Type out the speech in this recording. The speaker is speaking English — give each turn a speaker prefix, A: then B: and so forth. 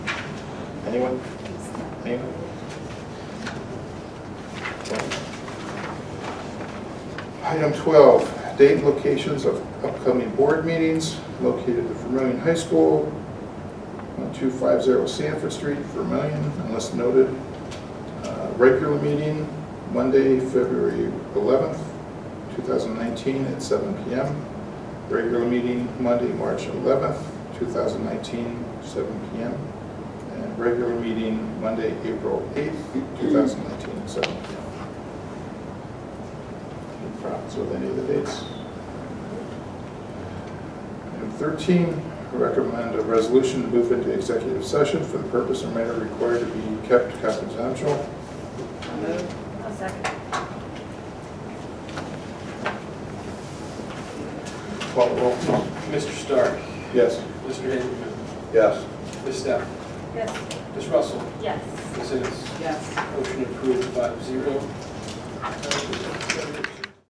A: Anyone? Anyone? Okay.
B: Item 12, date and locations of upcoming board meetings located at Vermillion High School, 1250 Sanford Street, Vermillion, unless noted. Uh, Regular meeting, Monday, February 11th, 2019, at 7 PM. Regular meeting, Monday, March 11th, 2019, 7 PM. And regular meeting, Monday, April 8th, 2019, 7 PM. Any problems with any of the dates? Item 13, recommend a resolution to move into executive session for the purpose or matter required to be kept confidential.
C: I'll second.
B: Call the roll, please.
D: Mr. Stark,
B: Yes.
D: Mr. Haberman,
B: Yes.
D: Ms. Steph,
C: Yes.
D: Ms. Russell,
C: Yes.
D: Ms. Ennis.
C: Yes.
D: Motion approved five zero.